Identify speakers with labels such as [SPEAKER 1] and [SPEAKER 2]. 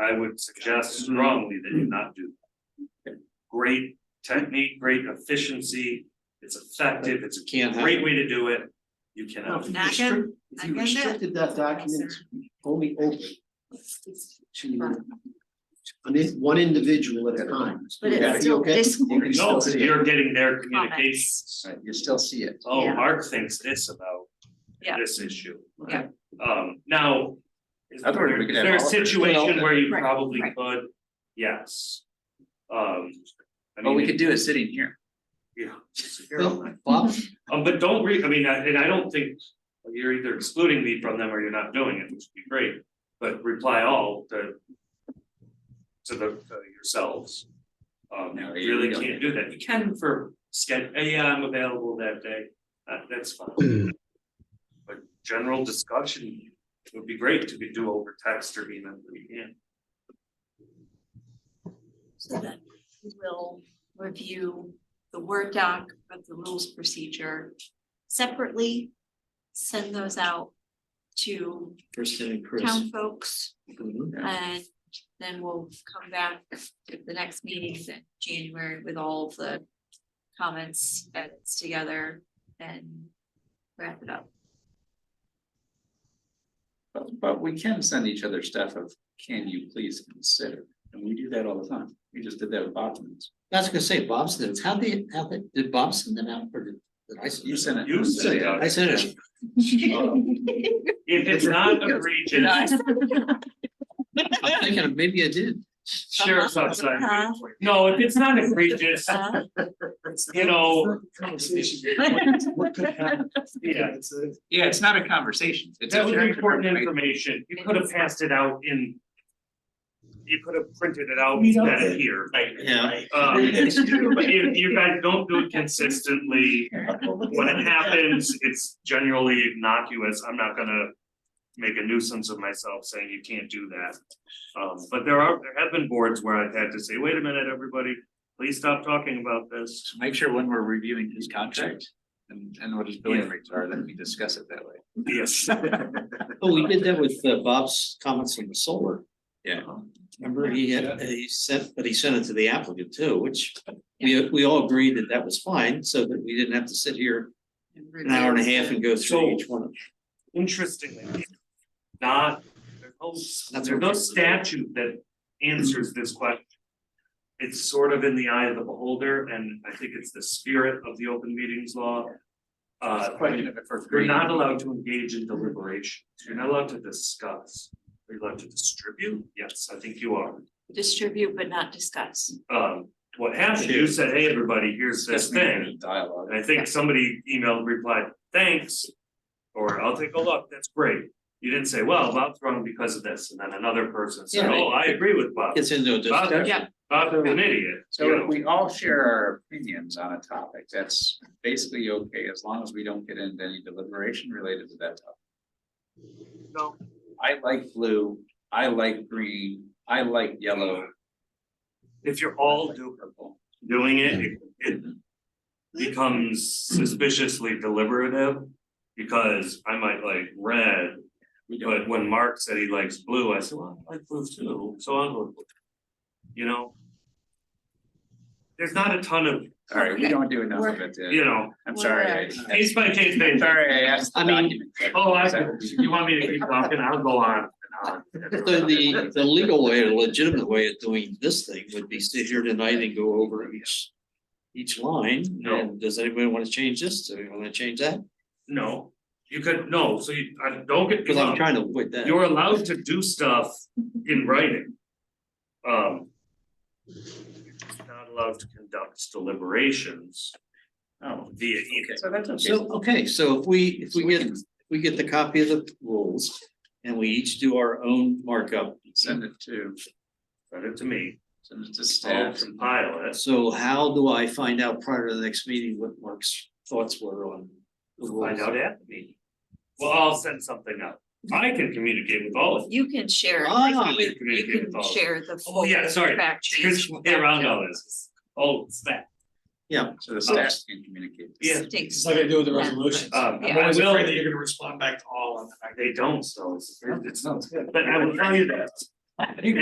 [SPEAKER 1] I would suggest
[SPEAKER 2] Mm-hmm.
[SPEAKER 1] strongly that you not do. that. Great technique, great efficiency, it's effective, it's a
[SPEAKER 2] Can't have-
[SPEAKER 1] great way to do it, you cannot.
[SPEAKER 3] I can-
[SPEAKER 4] If
[SPEAKER 3] I
[SPEAKER 4] you
[SPEAKER 3] can do it.
[SPEAKER 4] restricted that document to only open to. An in, one individual at a time.
[SPEAKER 3] But
[SPEAKER 4] Would
[SPEAKER 3] it's
[SPEAKER 4] that be
[SPEAKER 3] still
[SPEAKER 4] okay?
[SPEAKER 3] Discord.
[SPEAKER 4] You can
[SPEAKER 1] No,
[SPEAKER 4] still see it,
[SPEAKER 1] you're getting their communications.
[SPEAKER 4] Right, you still see it.
[SPEAKER 1] Oh,
[SPEAKER 3] Yeah.
[SPEAKER 1] Mark thinks this about
[SPEAKER 3] Yeah.
[SPEAKER 1] this issue.
[SPEAKER 3] Yeah.
[SPEAKER 1] Um, now. Is
[SPEAKER 2] I thought we
[SPEAKER 1] there
[SPEAKER 2] could
[SPEAKER 1] is
[SPEAKER 2] have
[SPEAKER 1] there a
[SPEAKER 2] all of it.
[SPEAKER 1] situation where you
[SPEAKER 3] Right,
[SPEAKER 1] probably
[SPEAKER 3] right.
[SPEAKER 1] could? Yes. Um. I
[SPEAKER 2] But we
[SPEAKER 1] mean,
[SPEAKER 2] could do it sitting here.
[SPEAKER 1] Yeah.
[SPEAKER 4] Bill, Bob,
[SPEAKER 1] Um, but don't re, I mean, I- and I don't think you're either excluding me from them or you're not doing it, which would be great, but reply all to. To the, to yourselves. Um, you
[SPEAKER 2] No, you
[SPEAKER 1] really
[SPEAKER 2] don't.
[SPEAKER 1] can't do that. You can for schedule, yeah, I'm available that day. That, that's fine. But general discussion would be great to be do over text or email, but we can't.
[SPEAKER 3] So that we will review the Word doc of the rules procedure separately. Send those out to
[SPEAKER 4] first and Chris.
[SPEAKER 3] town folks
[SPEAKER 4] Mhm.
[SPEAKER 3] and then we'll come back at the next meeting in January with all of the comments that's together and wrap it up.
[SPEAKER 2] But, but we can send each other stuff of, can you please consider? And we do that all the time. We just did that with documents.
[SPEAKER 4] I was gonna say, Bob sent it, how they, how they, did Bob send it out or did? did I send
[SPEAKER 2] You
[SPEAKER 4] it?
[SPEAKER 2] sent it.
[SPEAKER 1] You sent it
[SPEAKER 4] out?
[SPEAKER 1] out.
[SPEAKER 4] I sent it.
[SPEAKER 1] If it's not egregious,
[SPEAKER 4] out. I'm thinking of- maybe I did.
[SPEAKER 1] sheriff's outside.
[SPEAKER 3] Uh-huh.
[SPEAKER 1] No, if it's not egregious,
[SPEAKER 3] Uh,
[SPEAKER 1] you know,
[SPEAKER 4] What could happen?
[SPEAKER 1] yeah,
[SPEAKER 2] Yeah, it's not a conversation. It's
[SPEAKER 1] that
[SPEAKER 2] a
[SPEAKER 1] was
[SPEAKER 2] very
[SPEAKER 1] important
[SPEAKER 2] information.
[SPEAKER 1] information, you could have passed it out in. You could have printed it out instead of here,
[SPEAKER 4] Yeah.
[SPEAKER 1] um, but you, you guys don't do it consistently, when it happens, it's generally innocuous, I'm not gonna. Make a nuisance of myself saying you can't do that, um, but there are, there have been boards where I've had to say, wait a minute, everybody, please stop talking about this.
[SPEAKER 2] So Make sure when we're reviewing his contract and, and what his billing
[SPEAKER 1] Yeah.
[SPEAKER 2] rates are, that we discuss it that way.
[SPEAKER 1] Yes.
[SPEAKER 4] Oh, we did that with uh, Bob's comments on the solar.
[SPEAKER 2] Yeah.
[SPEAKER 4] Remember, he had, he sent, but he sent it to the applicant too, which we, we all agreed that that was fine, so that we didn't have to sit here an hour and a half and go through each one. of
[SPEAKER 1] interestingly, not, there's no,
[SPEAKER 4] That's
[SPEAKER 1] there's no
[SPEAKER 4] okay.
[SPEAKER 1] statute that answers this question. It's sort of in the eye of the beholder, and I think it's the spirit of the open meetings law. Uh,
[SPEAKER 2] Question of it for
[SPEAKER 1] you're
[SPEAKER 2] free.
[SPEAKER 1] not allowed to engage in deliberation, you're not allowed to discuss, you're allowed to distribute, yes, I think you are.
[SPEAKER 3] Distribute but not discuss.
[SPEAKER 1] Um, what happened, you said, hey, everybody, here's this thing,
[SPEAKER 2] Dialogue.
[SPEAKER 1] and I think somebody emailed, replied, thanks. Or I'll take a look, that's great. You didn't say, well, Bob's wrong because of this, and then another person said,
[SPEAKER 4] Yeah.
[SPEAKER 1] oh, I agree with
[SPEAKER 4] them.
[SPEAKER 1] Bob.
[SPEAKER 4] Gets into a discussion.
[SPEAKER 3] Yeah.
[SPEAKER 1] Bob's an idiot,
[SPEAKER 2] So
[SPEAKER 1] you
[SPEAKER 2] if
[SPEAKER 1] know,
[SPEAKER 2] we all share our opinions on a topic, that's basically okay, as long as we don't get into any deliberation related to that topic.
[SPEAKER 1] No.
[SPEAKER 2] I like blue, I like green, I like yellow.
[SPEAKER 1] if you're all do-
[SPEAKER 2] do purple.
[SPEAKER 1] doing it, it- it becomes suspiciously deliberative. Because I might like red,
[SPEAKER 2] We don't,
[SPEAKER 1] but when Mark said he likes blue, I said, well, I like blue too, so I'll go. with blue." You know? There's not a ton of,
[SPEAKER 2] all right, we don't do enough of it,
[SPEAKER 1] you
[SPEAKER 2] to-
[SPEAKER 1] know,
[SPEAKER 2] I'm sorry. I-
[SPEAKER 1] case by case
[SPEAKER 2] I'm
[SPEAKER 1] basis.
[SPEAKER 2] Sorry, I asked. the
[SPEAKER 4] I mean-
[SPEAKER 2] document question.
[SPEAKER 1] Oh, I,
[SPEAKER 2] Is that what we-
[SPEAKER 1] you want me to keep talking, I'll go on and on.
[SPEAKER 4] So the, the legal way, the legitimate way of doing this thing would be sit here tonight and go over each, each line.
[SPEAKER 1] No.
[SPEAKER 4] And does anybody want to change this? Do we want to change that?
[SPEAKER 1] No, you could, no, so you, I don't get, me
[SPEAKER 4] Because I'm
[SPEAKER 1] wrong.
[SPEAKER 4] trying to avoid that.
[SPEAKER 1] you're allowed to do stuff in writing. Um. you're Not allowed to conduct deliberations um,
[SPEAKER 2] Oh,
[SPEAKER 1] via email.
[SPEAKER 2] so that's okay.
[SPEAKER 4] So, okay, so if we, if we
[SPEAKER 2] So
[SPEAKER 4] get,
[SPEAKER 2] can
[SPEAKER 4] we get the copy of the rules and we each do our own markup.
[SPEAKER 2] Send it to,
[SPEAKER 1] Send it to me,
[SPEAKER 2] send it to
[SPEAKER 1] I'll
[SPEAKER 2] staff.
[SPEAKER 1] compile it,
[SPEAKER 4] So how do I find out prior to the next meeting what Mark's thoughts were on? the rules?
[SPEAKER 1] find out at me. Well, I'll send something out, I can communicate with all of you.
[SPEAKER 3] You can share,
[SPEAKER 4] Ah.
[SPEAKER 3] you can share the
[SPEAKER 1] Oh,
[SPEAKER 3] full
[SPEAKER 1] yeah, sorry.
[SPEAKER 3] fact sheet.
[SPEAKER 1] Here's the way around all this, oh, it's that.
[SPEAKER 2] So the staff can communicate.
[SPEAKER 1] Yeah.
[SPEAKER 3] Stinks.
[SPEAKER 5] It's not gonna do with the resolution.
[SPEAKER 1] Um,
[SPEAKER 5] I'm
[SPEAKER 1] I
[SPEAKER 5] always
[SPEAKER 1] will-
[SPEAKER 5] afraid that you're gonna respond back to all of them.
[SPEAKER 1] They don't, so it's, it's,
[SPEAKER 2] Oh. It's not.
[SPEAKER 1] but I will tell you that.